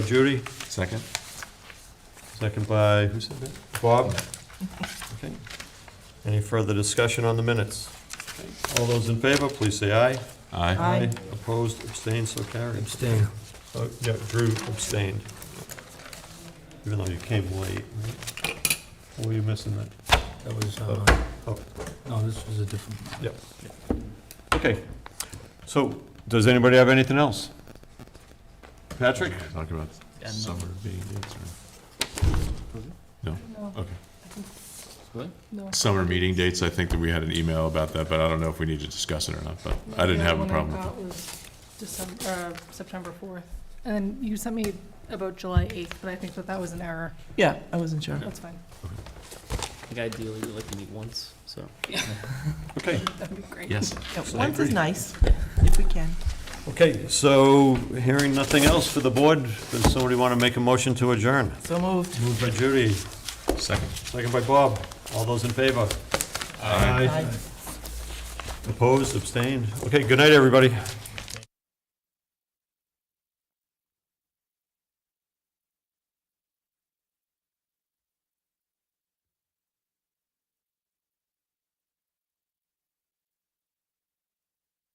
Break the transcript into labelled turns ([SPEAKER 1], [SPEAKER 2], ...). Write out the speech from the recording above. [SPEAKER 1] Judy,
[SPEAKER 2] Second?
[SPEAKER 1] second by, who said that? Bob? Okay. Any further discussion on the minutes? Okay. All those in favor, please say aye.
[SPEAKER 2] Aye.
[SPEAKER 3] Aye.
[SPEAKER 1] Opposed, abstained, so carried.
[SPEAKER 4] Abstain.
[SPEAKER 1] Oh, Yeah, Drew abstained. Even though you came late, right? What were you missing that?
[SPEAKER 4] That was, uh,
[SPEAKER 1] Oh. Oh.
[SPEAKER 4] no, this was a different.
[SPEAKER 1] Okay. So, does anybody have anything else? Patrick?
[SPEAKER 2] Talk about
[SPEAKER 3] Yeah, no.
[SPEAKER 2] summer meeting dates,
[SPEAKER 3] No,
[SPEAKER 2] or, okay.
[SPEAKER 3] no.
[SPEAKER 2] Summer meeting dates, I think that we had an email about that, but I don't know if we need to discuss it or not, but I didn't have a problem with
[SPEAKER 3] December, uh, September fourth, and then you sent me about July eighth, but I think that that was an error.
[SPEAKER 5] Yeah, I wasn't sure.
[SPEAKER 3] That's fine.
[SPEAKER 6] I think ideally we like to meet once, so.
[SPEAKER 1] Okay.
[SPEAKER 3] That'd be great.
[SPEAKER 2] it. Yes.
[SPEAKER 5] Yeah,
[SPEAKER 1] I
[SPEAKER 5] Once is
[SPEAKER 1] agree.
[SPEAKER 5] nice, if we can.
[SPEAKER 1] Okay, so hearing nothing else for the board, does somebody want to make a motion to adjourn?
[SPEAKER 5] So moved.
[SPEAKER 1] Moved by Judy,
[SPEAKER 2] Second.
[SPEAKER 1] Second by Bob. All those in favor? Aye. Opposed, abstained? Okay, good night, everybody.